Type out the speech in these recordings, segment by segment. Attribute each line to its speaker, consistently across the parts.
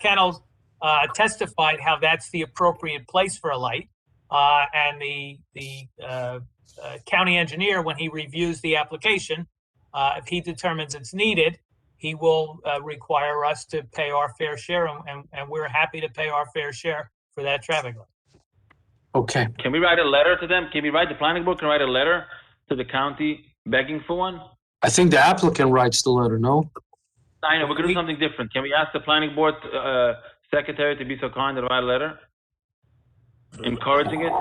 Speaker 1: kennels uh, testified how that's the appropriate place for a light. Uh, And the, the uh, uh, county engineer, when he reviews the application, uh, if he determines it's needed, he will uh, require us to pay our fair share, and- and, and we're happy to pay our fair share for that traffic light.
Speaker 2: Okay,
Speaker 3: Can we write a letter to them? Can we write, the planning board can write a letter to the county begging for one?
Speaker 2: I think the applicant writes the letter, no?
Speaker 3: I know, we could
Speaker 1: We-
Speaker 3: do something different. Can we ask the planning board, uh, secretary to be so kind and write a letter? Encouraging it?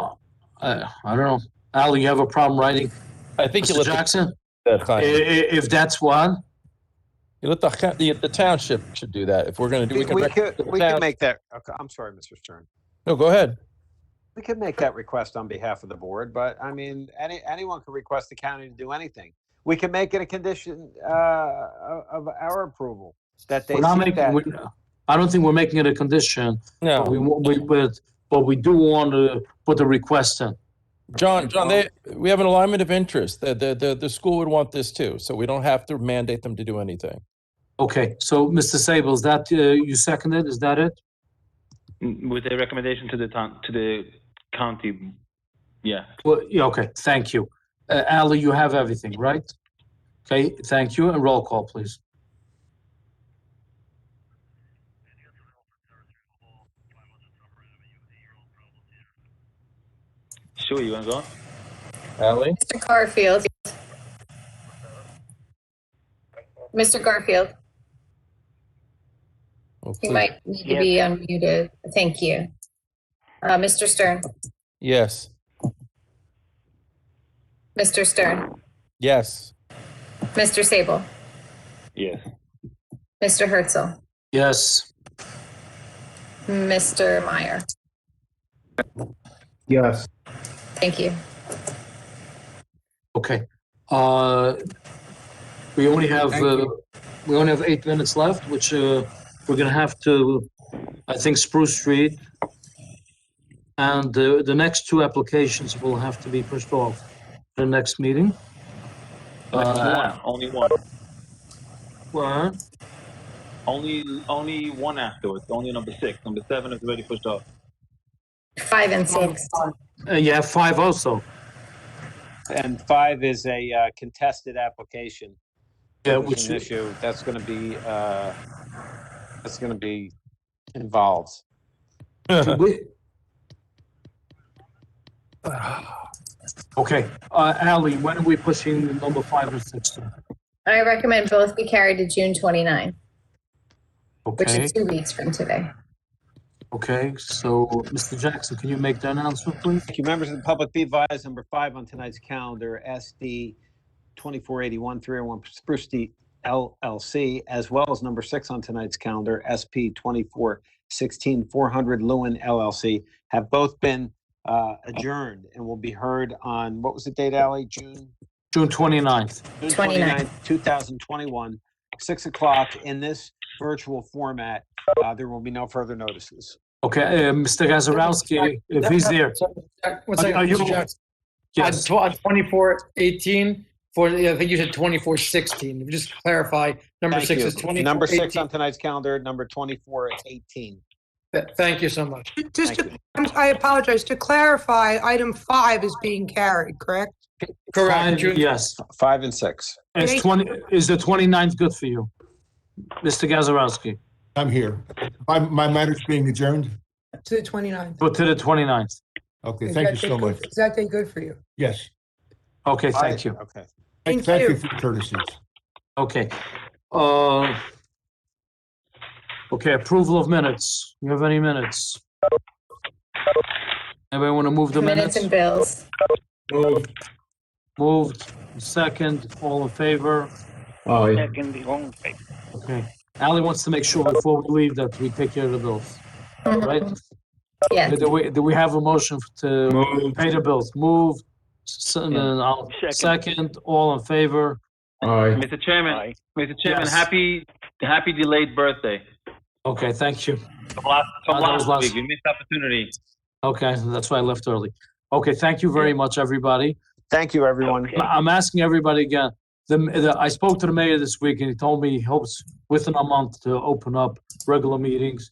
Speaker 2: Uh, I don't know. Al, you have a problem writing?
Speaker 4: I think you
Speaker 2: Mr.
Speaker 4: let the,
Speaker 2: Jackson, i-
Speaker 4: Chaim,
Speaker 2: i- if that's what,
Speaker 4: you let the, ca- the, the township should do that. If we're going to do,
Speaker 5: We
Speaker 4: we can,
Speaker 5: we
Speaker 4: rec-
Speaker 5: could,
Speaker 4: the
Speaker 5: we could
Speaker 4: town-
Speaker 5: make that, okay, I'm sorry, Mr. Stern.
Speaker 4: no, go ahead.
Speaker 5: We could make that request on behalf of the board, but I mean, any, anyone could request the county to do anything. We can make it a condition, uh, of of our approval, that they
Speaker 2: we're not making,
Speaker 5: seek that.
Speaker 2: we- I don't think we're making it a condition. But we,
Speaker 4: No,
Speaker 2: wa- we, but, but we do want to put the request in.
Speaker 4: John, John, they, we have an alignment of interest. The, the, the, the school would want this too. So we don't have to mandate them to do anything.
Speaker 2: Okay, so Mr. Sable, is that, uh, you seconded, is that it?
Speaker 3: With a recommendation to the town, to the county, yeah.
Speaker 2: Well, yeah, okay, thank you. Uh, Ali, you have everything, right? Okay, thank you, and roll call, please.
Speaker 3: Sure, you wanna go?
Speaker 4: Allie?
Speaker 6: Mr. Garfield. Mr. Garfield, you might need to be unmuted. Thank you. Uh, Mr. Stern,
Speaker 4: Yes,
Speaker 6: Mr. Stern,
Speaker 4: yes.
Speaker 6: Mr. Sable,
Speaker 3: Yes.
Speaker 6: Mr. Herzl,
Speaker 2: Yes,
Speaker 6: Mr. Meyer.
Speaker 7: Yes.
Speaker 6: Thank you.
Speaker 2: okay. Uh, we only have,
Speaker 7: Thank
Speaker 2: uh, we only have eight minutes left, which, uh, we're gonna have to, I think Spruce Street and the, the next two applications will have to be pushed off to the next meeting. Uh,
Speaker 3: One, only one.
Speaker 2: well,
Speaker 3: Only, only one afterwards, only number six. Number seven is already pushed off.
Speaker 6: Five and six.
Speaker 2: uh, you have five also.
Speaker 5: And five is a uh, contested application.
Speaker 2: Yeah,
Speaker 5: It's
Speaker 2: which,
Speaker 5: an issue that's gonna be, uh, that's gonna be involved.
Speaker 2: we- Ah. Okay, uh, Ally, when are we pushing number five and six? to?
Speaker 6: I recommend both be carried to June 29, which
Speaker 2: Okay,
Speaker 6: is two weeks from today.
Speaker 2: okay, so, Mr. Jackson, can you make the announcement, please?
Speaker 5: Thank you, members of the public. Be advised, number five on tonight's calendar, SD 2481 301 Spruce Street LLC, as well as number six on tonight's calendar, SP 2416 400 Lewin LLC, have both been uh, adjourned and will be heard on, what was the date, Ally? June?
Speaker 2: June 29th.
Speaker 5: June
Speaker 6: 29th.
Speaker 5: 29th, 2021, 6 o'clock in this virtual format. Uh, There will be no further notices.
Speaker 2: Okay, uh, Mr. Gazarovski, if he's there,
Speaker 7: uh, One
Speaker 2: Are- are
Speaker 7: second,
Speaker 2: you-
Speaker 7: Mr. Jackson. On
Speaker 2: yes,
Speaker 7: tw- on twenty-four eighteen, for, I think you said twenty-four sixteen, just clarify, number
Speaker 5: Thank
Speaker 7: six
Speaker 5: you.
Speaker 7: is twenty-four eighteen.
Speaker 5: Number six on tonight's calendar, number 2418.
Speaker 7: Th- Thank you so much.
Speaker 8: Just,
Speaker 5: Thank you.
Speaker 8: to- I'm- I apologize. To clarify, item five is being carried, correct?
Speaker 7: Uh, Correct,
Speaker 2: five,
Speaker 7: June,
Speaker 2: yes.
Speaker 5: Five and six.
Speaker 2: Is 20, is the 29th good for you? Mr. Gazarovski,
Speaker 9: I'm here. My, my matter's being adjourned.
Speaker 8: To the 29th.
Speaker 2: go to the 29th.
Speaker 9: Okay,
Speaker 8: Is
Speaker 9: thank
Speaker 8: that
Speaker 9: you
Speaker 8: day
Speaker 9: so
Speaker 8: good-
Speaker 9: much.
Speaker 8: Is that day good for you?
Speaker 9: Yes.
Speaker 2: Okay, thank you.
Speaker 5: Okay.
Speaker 8: Thank
Speaker 9: Thank
Speaker 8: you.
Speaker 9: you for your courtesies.
Speaker 2: Okay. Uh, Okay, approval of minutes. You have any minutes? Anybody want to move the
Speaker 6: Minutes
Speaker 2: minutes?
Speaker 6: and bills.
Speaker 2: Moved, second, all in favor?
Speaker 7: Aye.
Speaker 2: Okay. Ali wants to make sure before we leave that we take care of the bills, right?
Speaker 6: Yes.
Speaker 2: Do we, do we have a motion to pay the bills? Move, s- and then I'll- second, all in favor?
Speaker 3: Mr. Chairman, Mr. Chairman,
Speaker 2: Yes.
Speaker 3: happy, happy delayed birthday.
Speaker 2: Okay, thank you.
Speaker 3: From last, from
Speaker 2: Oh, that was
Speaker 3: last
Speaker 2: last-
Speaker 3: week, you missed opportunity.
Speaker 2: Okay, that's why I left early. Okay, thank you very much, everybody.
Speaker 5: Thank you, everyone.
Speaker 2: I- I'm asking everybody again. The, the, I spoke to the mayor this week and he told me he hopes within a month to open up regular meetings.